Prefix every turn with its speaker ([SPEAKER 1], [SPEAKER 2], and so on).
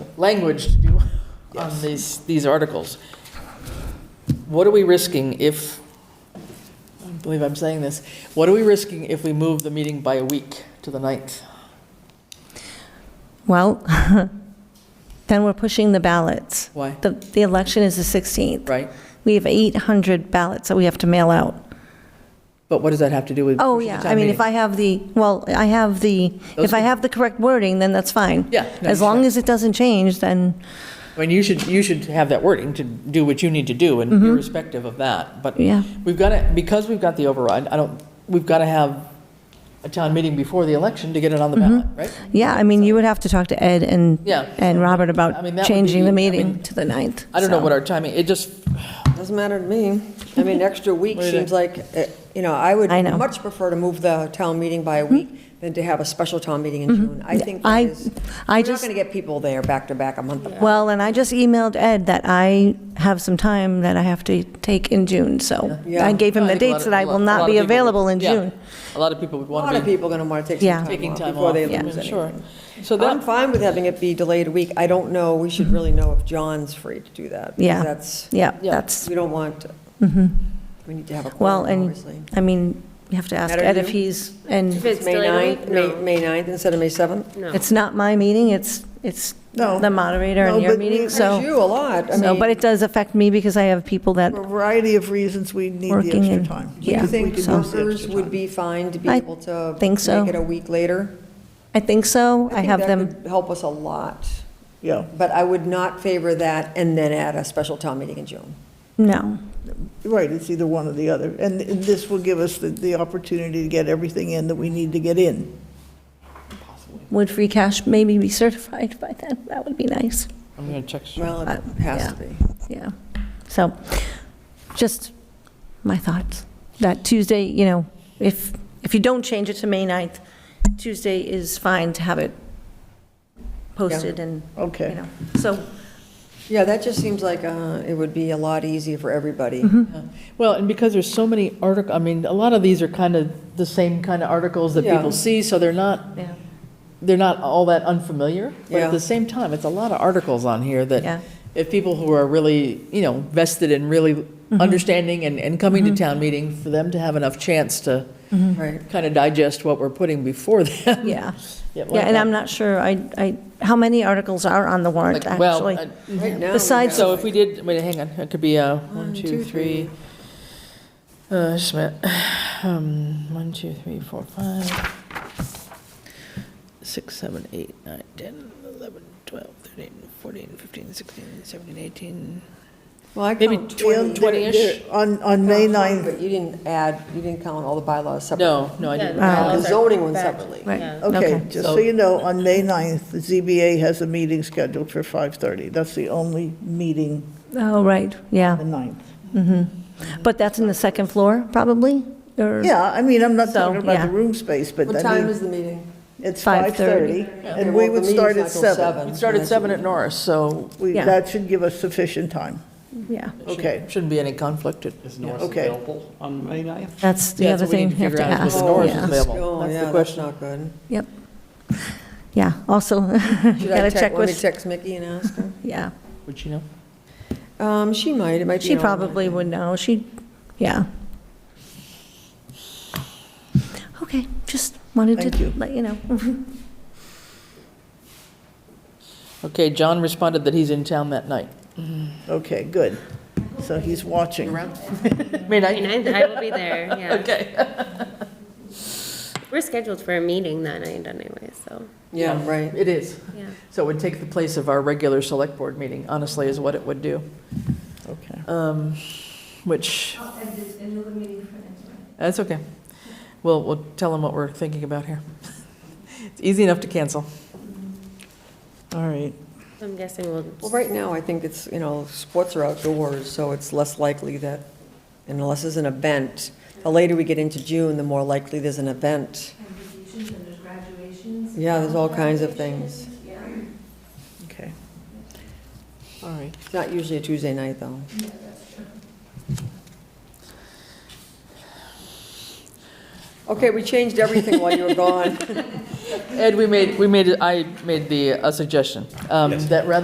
[SPEAKER 1] language to do on these, these articles. What are we risking if, I don't believe I'm saying this, what are we risking if we move the meeting by a week to the 9th?
[SPEAKER 2] Well, then we're pushing the ballots.
[SPEAKER 1] Why?
[SPEAKER 2] The, the election is the 16th.
[SPEAKER 1] Right?
[SPEAKER 2] We have 800 ballots that we have to mail out.
[SPEAKER 1] But what does that have to do with?
[SPEAKER 2] Oh,
[SPEAKER 1] pushing the
[SPEAKER 2] yeah,
[SPEAKER 1] town
[SPEAKER 2] I mean, if
[SPEAKER 1] meeting?
[SPEAKER 2] I have the, well, I have the,
[SPEAKER 1] Those
[SPEAKER 2] if I
[SPEAKER 1] are-
[SPEAKER 2] have the correct wording, then that's fine.
[SPEAKER 1] Yeah, no,
[SPEAKER 2] As
[SPEAKER 1] sure.
[SPEAKER 2] long as it doesn't change, then,
[SPEAKER 1] I mean, you should, you should have that wording to do what you need to do and irrespective of that. But
[SPEAKER 2] Mm-hmm. Yeah.
[SPEAKER 1] we've got to, because we've got the override, I don't, we've got to have a town meeting before the election to get it on the
[SPEAKER 2] Mm-hmm.
[SPEAKER 1] ballot, right?
[SPEAKER 2] yeah, I mean, you would have to talk to Ed and,
[SPEAKER 1] Yeah.
[SPEAKER 2] and Robert
[SPEAKER 1] I
[SPEAKER 2] about
[SPEAKER 1] mean, that would
[SPEAKER 2] changing
[SPEAKER 1] be- I
[SPEAKER 2] the
[SPEAKER 1] mean,
[SPEAKER 2] meeting to the 9th.
[SPEAKER 1] I don't know
[SPEAKER 2] so.
[SPEAKER 1] what our timing, it just,
[SPEAKER 3] Doesn't matter to me. I mean, extra week
[SPEAKER 1] Wait a-
[SPEAKER 3] seems like, eh, you know, I would
[SPEAKER 2] I know. Hmm?
[SPEAKER 3] much prefer to move the town meeting by a week than to have a special town meeting in June. I think
[SPEAKER 2] Mm-hmm.
[SPEAKER 3] that
[SPEAKER 2] I-
[SPEAKER 3] is,
[SPEAKER 2] I
[SPEAKER 3] we're not
[SPEAKER 2] just-
[SPEAKER 3] going to get people there back to back a month apart.
[SPEAKER 2] Well, and I just emailed Ed that I have some time that I have to take in June, so
[SPEAKER 3] Yeah.
[SPEAKER 2] I gave him the
[SPEAKER 1] I think a lot
[SPEAKER 2] dates
[SPEAKER 1] of-
[SPEAKER 2] that I
[SPEAKER 1] a lot-
[SPEAKER 2] will
[SPEAKER 1] a
[SPEAKER 2] not
[SPEAKER 1] lot of
[SPEAKER 2] be
[SPEAKER 1] people would-
[SPEAKER 2] available in
[SPEAKER 1] yeah.
[SPEAKER 2] June.
[SPEAKER 1] A lot of people would
[SPEAKER 3] A lot
[SPEAKER 1] want to
[SPEAKER 3] of
[SPEAKER 1] be
[SPEAKER 3] people are going to want to take
[SPEAKER 2] Yeah.
[SPEAKER 3] some time
[SPEAKER 1] taking
[SPEAKER 3] off
[SPEAKER 1] time
[SPEAKER 3] before
[SPEAKER 1] off.
[SPEAKER 3] they
[SPEAKER 1] yeah,
[SPEAKER 3] lose
[SPEAKER 1] Sure.
[SPEAKER 3] anything.
[SPEAKER 1] So
[SPEAKER 3] I'm
[SPEAKER 1] that,
[SPEAKER 3] fine with having it be delayed a week. I don't know, we should really know if John's free to do that. because
[SPEAKER 2] Mm-hmm. Yeah.
[SPEAKER 3] That's,
[SPEAKER 2] Yeah,
[SPEAKER 1] Yeah.
[SPEAKER 2] that's,
[SPEAKER 3] we don't want, we need to have a
[SPEAKER 2] well,
[SPEAKER 3] quorum,
[SPEAKER 2] and,
[SPEAKER 3] obviously.
[SPEAKER 2] I mean, you have to ask
[SPEAKER 3] Matter to
[SPEAKER 2] Ed if
[SPEAKER 3] you?
[SPEAKER 2] he's, and
[SPEAKER 4] If it's
[SPEAKER 3] May
[SPEAKER 4] delayed a
[SPEAKER 3] 9th,
[SPEAKER 4] week,
[SPEAKER 3] May
[SPEAKER 4] no.
[SPEAKER 3] May 9th instead of May 7th?
[SPEAKER 4] No.
[SPEAKER 2] it's not my meeting, it's, it's
[SPEAKER 3] No.
[SPEAKER 2] the moderator
[SPEAKER 5] No,
[SPEAKER 2] and your
[SPEAKER 5] but we
[SPEAKER 2] meeting,
[SPEAKER 5] encourage
[SPEAKER 2] so.
[SPEAKER 3] It's you a lot. I
[SPEAKER 2] So,
[SPEAKER 3] mean-
[SPEAKER 2] but it does affect me because I have people that,
[SPEAKER 5] For a variety of reasons, we need the
[SPEAKER 2] Working
[SPEAKER 5] extra
[SPEAKER 2] and-
[SPEAKER 5] time.
[SPEAKER 2] yeah.
[SPEAKER 3] Do
[SPEAKER 5] We
[SPEAKER 3] you think
[SPEAKER 5] could use the extra
[SPEAKER 3] workers
[SPEAKER 5] time.
[SPEAKER 3] would be fine to be
[SPEAKER 2] I
[SPEAKER 3] able to?
[SPEAKER 2] think so.
[SPEAKER 3] Make it a week later?
[SPEAKER 2] I think so, I
[SPEAKER 3] think
[SPEAKER 2] have
[SPEAKER 3] that
[SPEAKER 2] them,
[SPEAKER 3] could Help us a lot,
[SPEAKER 5] Yeah,
[SPEAKER 3] but I would not favor that and then add a special town meeting in June.
[SPEAKER 2] no,
[SPEAKER 5] right, it's either one or the other. And this will give us the, the opportunity to get everything in that we need to get in.
[SPEAKER 2] would free cash maybe be certified by then? That would be nice,
[SPEAKER 1] I'm going to check.
[SPEAKER 3] Well,
[SPEAKER 2] Uh,
[SPEAKER 3] it has to be.
[SPEAKER 2] yeah. So, just my thoughts, that Tuesday, you know, if, if you don't change it to May 9th, Tuesday is fine to have it posted and, you
[SPEAKER 5] Okay.
[SPEAKER 2] know, so,
[SPEAKER 3] Yeah, that just seems like uh, it would be a lot easier for everybody.
[SPEAKER 2] Mm-hmm.
[SPEAKER 1] Well, and because there's so many articles, I mean, a lot of these are kind of the same kind of articles that
[SPEAKER 3] Yeah.
[SPEAKER 1] people see, so they're not,
[SPEAKER 2] yeah,
[SPEAKER 1] they're not all that unfamiliar. But
[SPEAKER 3] Yeah.
[SPEAKER 1] at the same time, it's a lot of articles on here
[SPEAKER 2] Yeah.
[SPEAKER 1] that, if people who are really, you know, vested in really
[SPEAKER 2] Mm-hmm.
[SPEAKER 1] understanding and, and coming to town meeting, for them to have enough chance to
[SPEAKER 2] Mm-hmm.
[SPEAKER 3] Right.
[SPEAKER 1] kind of digest what we're putting before them.
[SPEAKER 2] yeah.
[SPEAKER 1] Yeah, well,
[SPEAKER 2] Yeah, and I'm not sure, I, I, how many articles are on the warrant,
[SPEAKER 1] like, well,
[SPEAKER 2] actually?
[SPEAKER 1] uh,
[SPEAKER 3] Right now, we
[SPEAKER 2] Besides-
[SPEAKER 3] have-
[SPEAKER 1] So if we did, wait, hang on, it could be uh one, two, three. Uh, just a minute. Um, one, two, three, four, five, six, seven, eight, nine, 10, 11, 12, 13, 14, 15, 16, 17, 18.
[SPEAKER 3] Well, I
[SPEAKER 1] Maybe
[SPEAKER 3] count
[SPEAKER 5] Well,
[SPEAKER 3] 20.
[SPEAKER 5] they're-
[SPEAKER 1] 20-ish.
[SPEAKER 5] they're- On, on May
[SPEAKER 3] Count 20,
[SPEAKER 5] 9th,
[SPEAKER 3] But you didn't add, you didn't count all the bylaws separately.
[SPEAKER 1] No, no, I
[SPEAKER 4] Yeah,
[SPEAKER 2] Oh.
[SPEAKER 1] didn't. Uh,
[SPEAKER 4] the bylaws
[SPEAKER 3] The
[SPEAKER 4] are
[SPEAKER 3] zoning one
[SPEAKER 4] back.
[SPEAKER 3] separately.
[SPEAKER 2] Right.
[SPEAKER 4] Yeah.
[SPEAKER 5] okay,
[SPEAKER 2] Okay.
[SPEAKER 5] just
[SPEAKER 1] So-
[SPEAKER 5] so you know, on May 9th, the ZBA has a meeting scheduled for 5:30. That's the only meeting
[SPEAKER 2] Oh, right, yeah.
[SPEAKER 5] on the 9th.
[SPEAKER 2] But that's in the second floor, probably? Or-
[SPEAKER 5] Yeah, I mean, I'm not
[SPEAKER 2] So,
[SPEAKER 5] talking about
[SPEAKER 2] yeah.
[SPEAKER 5] the room space, but
[SPEAKER 3] What
[SPEAKER 5] I
[SPEAKER 3] time
[SPEAKER 5] mean,
[SPEAKER 3] is the meeting?
[SPEAKER 5] it's
[SPEAKER 2] 5:30.
[SPEAKER 5] 5:30,
[SPEAKER 3] Okay,
[SPEAKER 5] and
[SPEAKER 3] well,
[SPEAKER 5] we
[SPEAKER 3] the
[SPEAKER 5] would
[SPEAKER 3] meeting's
[SPEAKER 5] start
[SPEAKER 3] not
[SPEAKER 5] at
[SPEAKER 3] till
[SPEAKER 5] 7.
[SPEAKER 1] We started seven at Norris, so
[SPEAKER 5] We-
[SPEAKER 2] Yeah.
[SPEAKER 5] That should give us sufficient time.
[SPEAKER 2] Yeah,
[SPEAKER 1] it shouldn't-
[SPEAKER 5] Okay.
[SPEAKER 1] Shouldn't be any conflict. It-
[SPEAKER 6] Is Norris
[SPEAKER 5] Okay.
[SPEAKER 6] available on May 9th?
[SPEAKER 2] that's the
[SPEAKER 1] Yeah, that's
[SPEAKER 2] other
[SPEAKER 1] what we
[SPEAKER 2] thing
[SPEAKER 1] need
[SPEAKER 2] you
[SPEAKER 1] to
[SPEAKER 2] have to
[SPEAKER 1] figure out is
[SPEAKER 2] ask.
[SPEAKER 1] whether Norris is
[SPEAKER 2] yeah.
[SPEAKER 1] available.
[SPEAKER 3] Oh,
[SPEAKER 1] That's the
[SPEAKER 3] yeah, that's
[SPEAKER 1] question.
[SPEAKER 3] not good.
[SPEAKER 2] Yep. Yeah, also,
[SPEAKER 3] Should
[SPEAKER 2] gotta
[SPEAKER 3] I check,
[SPEAKER 2] check
[SPEAKER 3] let me
[SPEAKER 2] with,
[SPEAKER 3] text Mickey and ask her?
[SPEAKER 2] yeah.
[SPEAKER 1] Would you know?
[SPEAKER 3] Um, she might, it might be.
[SPEAKER 2] She
[SPEAKER 3] on that
[SPEAKER 2] probably
[SPEAKER 3] day.
[SPEAKER 2] would know, she, yeah. Okay, just wanted
[SPEAKER 5] Thank
[SPEAKER 2] to
[SPEAKER 5] you.
[SPEAKER 2] let you know.
[SPEAKER 1] Okay, John responded that he's in town that night.
[SPEAKER 5] Okay, good. So he's watching.
[SPEAKER 1] May
[SPEAKER 4] May 9th, I will be there, yeah.
[SPEAKER 1] Okay.
[SPEAKER 4] We're scheduled for a meeting that night anyway, so,
[SPEAKER 3] Yeah, right.
[SPEAKER 1] It is.
[SPEAKER 4] yeah.
[SPEAKER 1] So it would take the place of our regular select board meeting, honestly, is what it would do,
[SPEAKER 5] Okay.
[SPEAKER 1] Um, which. That's okay. We'll, we'll tell them what we're thinking about here. It's easy enough to cancel.
[SPEAKER 5] All right.
[SPEAKER 4] I'm guessing we'll,
[SPEAKER 3] Well, right now, I think it's, you know, sports are outdoors, so it's less likely that, unless there's an event, the later we get into June, the more likely there's an event. Yeah, there's all kinds of things.
[SPEAKER 5] Okay.
[SPEAKER 1] All right.
[SPEAKER 3] It's not usually a Tuesday night, though. Okay, we changed everything while you were gone.
[SPEAKER 1] Ed, we made, we made, I made the, a uh, suggestion, um, that rather